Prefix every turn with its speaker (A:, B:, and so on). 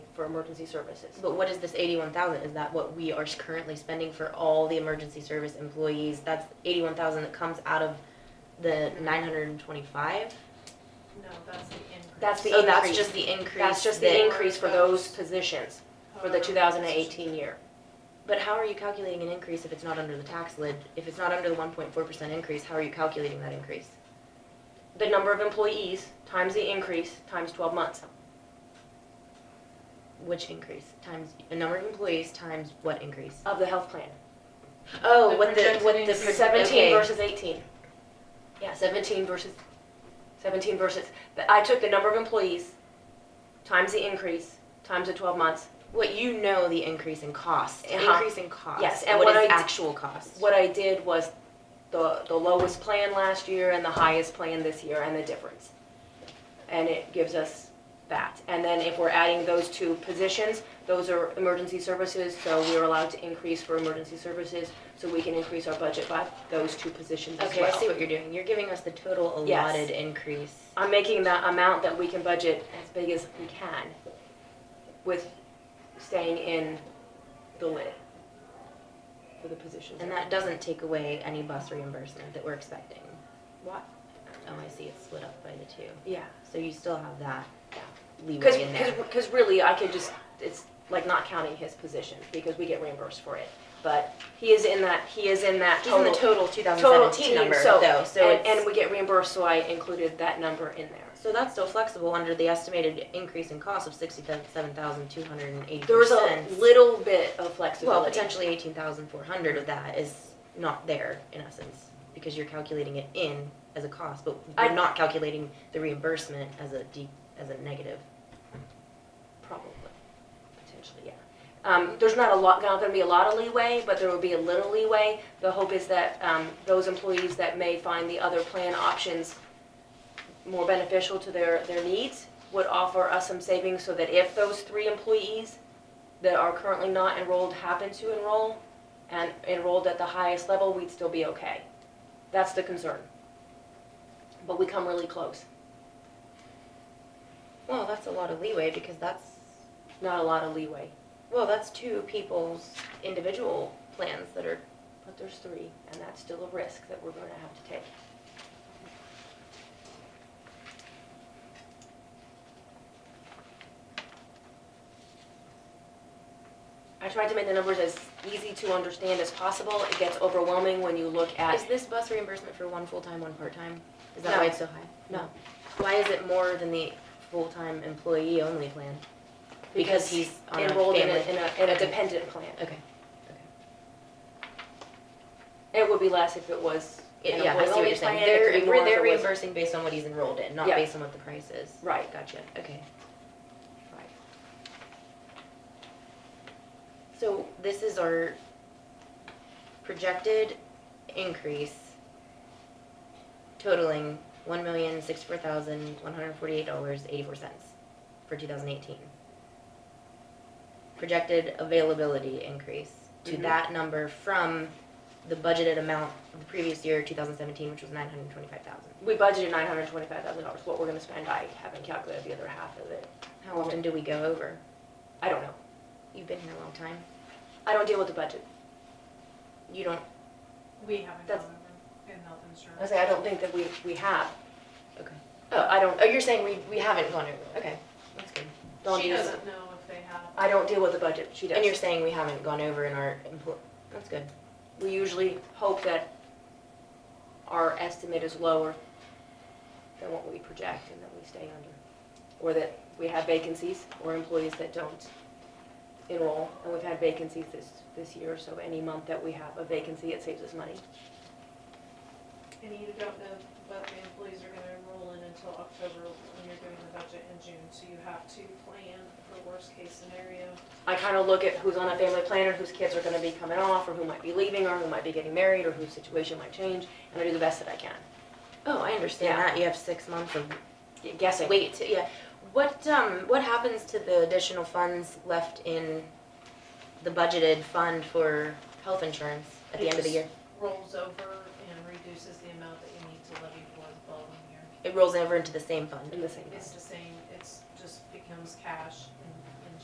A: for emergency services.
B: But what is this eighty-one thousand? Is that what we are currently spending for all the emergency service employees? That's eighty-one thousand that comes out of the nine hundred and twenty-five?
C: No, that's the increase.
A: That's the
B: So that's
A: increase.
B: just the increase
A: That's just
B: that- Uh-huh.
A: the increase for those positions for the
C: However,
A: two thousand and eighteen year.
B: But how are you calculating an increase if it's not under the tax lid? If it's not under the one point four percent increase, how are you calculating that increase?
A: The number of employees times the increase times twelve months.
B: Which increase? Times, the number of employees times what increase?
A: of the health plan. Oh,
C: The
A: what the,
C: projected
A: what the,
C: increase.
A: seventeen
B: Okay.
A: versus eighteen. Yeah, seventeen versus, seventeen versus, but I took the number of employees, times the increase, times the twelve months.
B: What you know the increase in cost,
A: Uh-huh.
B: increase in cost.
A: Yes, and
B: what
A: what I
B: is
A: d-
B: actual cost?
A: What I did was the, the lowest plan last year and the highest plan this year and the difference. And it gives us that. And then if we're adding those two positions, those are emergency services, so we are allowed to increase for emergency services, so we can increase our budget by those two positions as
B: Okay,
A: well.
B: I see what you're doing. You're giving us the total
A: Yes.
B: allotted increase.
A: I'm making that amount that we can budget as big as we can with staying in the lid for the positions.
B: And that doesn't take away any bus reimbursement that we're expecting.
A: What?
B: Oh, I see, it's split up by the two.
A: Yeah.
B: So you still have that
A: Because,
B: leeway in there.
A: because really, I could just, it's like not counting his position because we get reimbursed for it. But he is in that, he is in that
B: He's in the
A: total.
B: total
A: total
B: 2017
A: team,
B: number
A: so-
B: though, so
A: And,
B: it's-
A: and we get reimbursed, so I included that number in there.
B: So that's still flexible under the estimated increase in cost of sixty-seven thousand two hundred and eighty
A: There was a
B: percent.
A: little bit of
B: Well,
A: flexibility.
B: potentially eighteen thousand four hundred of that is not there in essence, because you're calculating it in as a cost, but
A: I-
B: you're not calculating the reimbursement as a de, as a negative.
A: Probably, potentially, yeah. Um, there's not a lot, not gonna be a lot of leeway, but there will be a little leeway. The hope is that, um, those employees that may find the other plan options more beneficial to their, their needs would offer us some savings so that if those three employees that are currently not enrolled happen to enroll and enrolled at the highest level, we'd still be okay. That's the concern. But we come really close.
B: Well, that's a lot of leeway, because that's
A: Not a lot of leeway,
B: Well, that's two people's individual plans that are,
A: but there's three, and that's still a risk that we're gonna have to take. I tried to make the numbers as easy to understand as possible. It gets overwhelming when you look
B: is
A: at,
B: this bus reimbursement for one full-time, one part-time? Is that
A: No.
B: why it's so high?
A: no.
B: Why is it more than the full-time employee only plan? Because he's on a
A: enrolled in a, in
B: family-
A: a, in a
B: Okay.
A: dependent plan.
B: Okay.
A: It would be less if it was an
B: Yeah, I see what
A: employee
B: you're saying.
A: plan. It could
B: They're,
A: be more if
B: they're
A: it was-
B: reimbursing based on what he's enrolled in, not
A: Yeah.
B: based on what the price is.
A: Right,
B: Gotcha, okay.
A: right.
B: So this is our projected increase totaling one million sixty-four thousand one hundred forty-eight dollars eighty-four cents for two thousand eighteen. Projected availability increase to
A: Mhm.
B: that number from the budgeted amount of the previous year, two thousand seventeen, which was nine hundred twenty-five thousand.
A: We budgeted nine hundred twenty-five thousand dollars, what we're gonna spend, I haven't calculated the other half of it,
B: How often do we go over?
A: I don't know,
B: You've been here a long time.
A: I don't deal with the budget.
B: You don't,
C: We haven't gone
A: That's-
C: over in health
A: I
C: insurance.
A: say, I don't think that we, we have,
B: okay.
A: oh, I don't,
B: Oh, you're saying we, we haven't gone over, okay, that's good.
A: don't
C: She
A: use
C: doesn't know if they have.
A: I don't deal with the budget, she does.
B: And you're saying we haven't gone over in our, impl- that's good.
A: We usually hope that our estimate is lower than what we project and that we stay under. Or that we have vacancies or employees that don't enroll, and we've had vacancies this, this year, so any month that we have a vacancy, it saves us money.
C: And you don't know what the employees are gonna enroll in until October when you're doing the budget in June, so you have to plan for worst case scenario.
A: I kind of look at who's on a family planner, whose kids are gonna be coming off, or who might be leaving, or who might be getting married, or whose situation might change, and I do the best that I can.
B: Oh, I understand
A: Yeah.
B: that. You have six months of
A: Y- Guessing.
B: wait. to- Yeah. What um what happens to the additional funds left in the budgeted fund for health insurance at the end of the year?
C: Rolls over and reduces the amount that you need to levy for the following year.
B: It rolls over into the same fund.
A: In the same,
C: It's the same, it's just becomes cash.